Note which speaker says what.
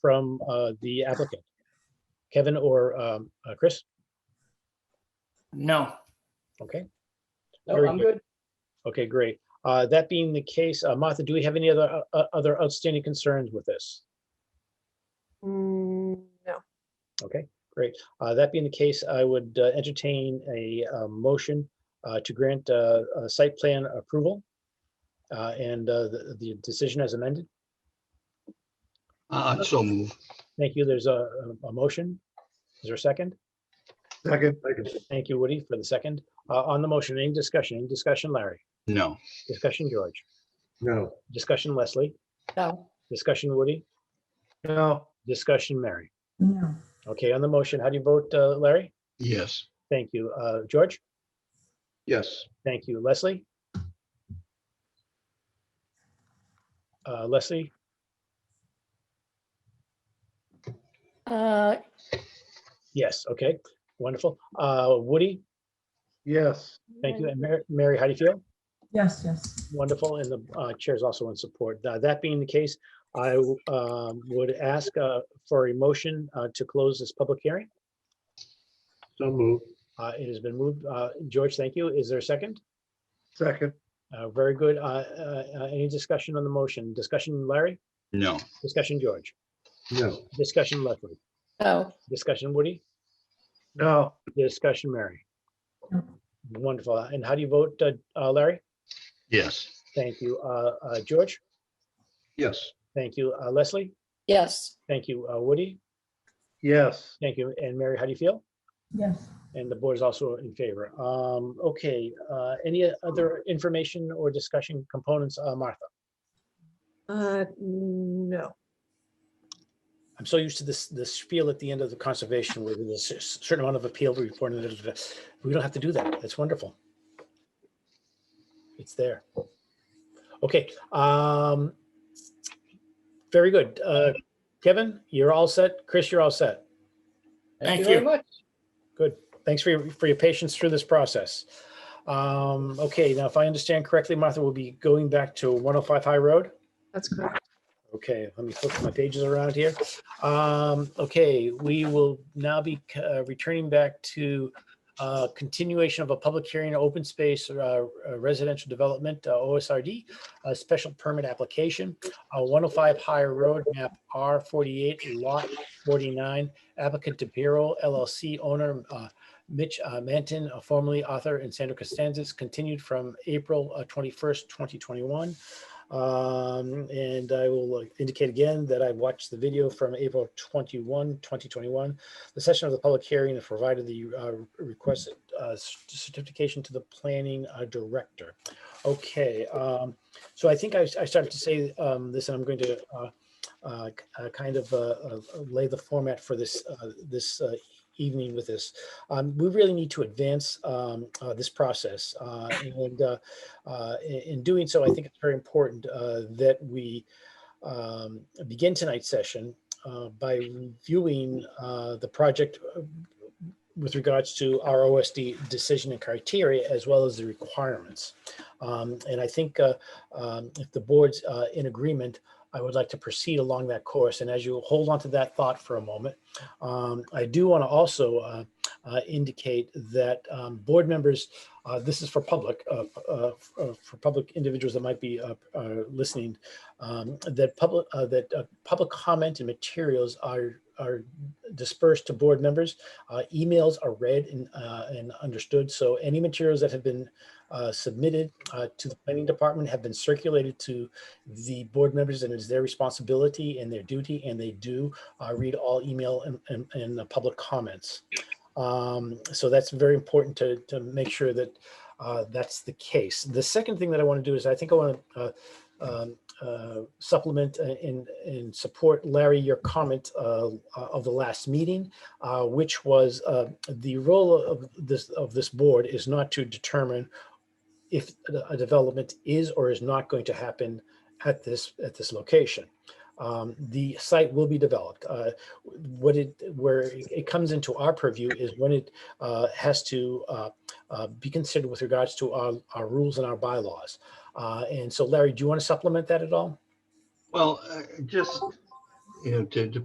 Speaker 1: from uh, the applicant? Kevin or um, uh, Chris?
Speaker 2: No,
Speaker 1: Okay,
Speaker 3: No,
Speaker 1: Very
Speaker 3: I'm
Speaker 1: good.
Speaker 3: good.
Speaker 1: okay, great. Uh, That being the case, uh, Martha, do we have any other, uh, other outstanding concerns with this?
Speaker 3: Mm, No,
Speaker 1: Okay, great. Uh, That being the case, I would uh, entertain a uh, motion uh, to grant uh, a site plan approval uh, and uh, the the decision as amended.
Speaker 4: Uh, so move.
Speaker 1: Thank you. There's a, a- a motion. Is there a second?
Speaker 5: Second.
Speaker 1: Thank you, Woody, for the second. Uh, On the motion, any discussion? Any discussion, Larry?
Speaker 4: No,
Speaker 1: Discussion, George?
Speaker 5: No.
Speaker 1: Discussion, Leslie?
Speaker 3: no,
Speaker 1: Discussion, Woody?
Speaker 5: No.
Speaker 1: Discussion, Mary?
Speaker 6: No.
Speaker 1: Okay, on the motion, how do you vote, uh, Larry?
Speaker 4: yes,
Speaker 1: Thank you. Uh, George?
Speaker 5: Yes.
Speaker 1: Thank you. Leslie? Uh, Leslie?
Speaker 3: uh,
Speaker 1: Yes, okay, wonderful. Uh, Woody?
Speaker 5: Yes.
Speaker 1: Thank you. And Mar- Mary, how do you feel?
Speaker 6: Yes, yes.
Speaker 1: Wonderful, and the uh, chair is also in support. Tha- That being the case, I w- um, would ask uh, for a motion uh, to close this public hearing.
Speaker 5: So move.
Speaker 1: Uh, It has been moved. Uh, George, thank you. Is there a second?
Speaker 5: Second.
Speaker 1: Uh, Very good. Uh, uh, uh, Any discussion on the motion? Discussion, Larry?
Speaker 4: no,
Speaker 1: Discussion, George?
Speaker 5: No.
Speaker 1: Discussion, Leslie?
Speaker 3: no,
Speaker 1: Discussion, Woody?
Speaker 5: No.
Speaker 1: Discussion, Mary?
Speaker 6: No.
Speaker 1: Wonderful. And how do you vote, uh, uh, Larry?
Speaker 4: yes,
Speaker 1: Thank you. Uh, uh, George?
Speaker 5: Yes.
Speaker 1: Thank you. Uh, Leslie?
Speaker 3: yes,
Speaker 1: Thank you. Uh, Woody?
Speaker 5: Yes.
Speaker 1: Thank you. And Mary, how do you feel?
Speaker 6: Yes.
Speaker 1: And the board is also in favor. Um, okay, uh, any other information or discussion components, uh, Martha?
Speaker 3: uh, no,
Speaker 1: I'm so used to this, this spiel at the end of the conservation where there's a cer- certain amount of appeal report. and da- da- da. We don't have to do that. That's wonderful. It's there. Okay, um, very good. Uh, Kevin, you're all set. Chris, you're all set.
Speaker 2: Thank
Speaker 3: thank you very
Speaker 2: you.
Speaker 3: much.
Speaker 1: Thanks for your, for your patience through this process. Um, okay, now if I understand correctly, Martha, we'll be going back to 105 High Road.
Speaker 3: That's correct.
Speaker 1: Okay, let me flip my pages around here. Um, okay, we will now be uh, returning back to uh, continuation of a public hearing, open space uh, residential development, uh, OSRD, a uh, special permit application, uh, 105 Higher Road, map R48, lot 49, applicant De Piro LLC owner uh, Mitch uh, Manton, uh, formerly author, and Sandra Costanzas, continued from April uh, 21st, 2021. Um, and I will uh, indicate again that I watched the video from April 21, 2021. The session of the public hearing that provided the uh, requested uh, c- certification to the planning uh, director. Okay, um, so I think I, I started to say um, this, and I'm going to uh, uh, k- uh, kind of uh, uh, lay the format for this uh, this uh, evening with this. Um, we really need to advance um, uh, this process, uh, and uh, uh, in, in doing so, I think it's very important uh, that we um, begin tonight's session uh, by reviewing uh, the project uh, with regards to our OSD decision and criteria, as well as the requirements. Um, and I think uh, um, if the board's uh, in agreement, I would like to proceed along that course. And as you hold on to that thought for a moment, um, I do want to also uh, uh, indicate that um, board members uh, This is for public, uh, p- uh, f- uh, for public individuals that might be uh, uh, listening, um, that public, uh, that uh, public comment and materials are are dispersed to board members. Uh, Emails are read and uh, and understood, so any materials that have been uh, submitted uh, to the planning department have been circulated to the board members, and it's their responsibility and their duty, and they do uh, read all email and- and and uh, public comments. Um, so that's very important to, to make sure that uh, that's the case. The second thing that I want to do is I think I want to uh, um, uh, supplement a- and, and support Larry, your comment uh, of the last meeting, uh, which was uh, the role of this, of this board is not to determine if a- a development is or is not going to happen at this, at this location. Um, the site will be developed. Uh, what it where it it comes into our purview is when it uh, has to uh, uh, be considered with regards to our, our rules and our bylaws. Uh, and so, Larry, do you want to supplement that at all?
Speaker 4: well, uh, just, you know, to, to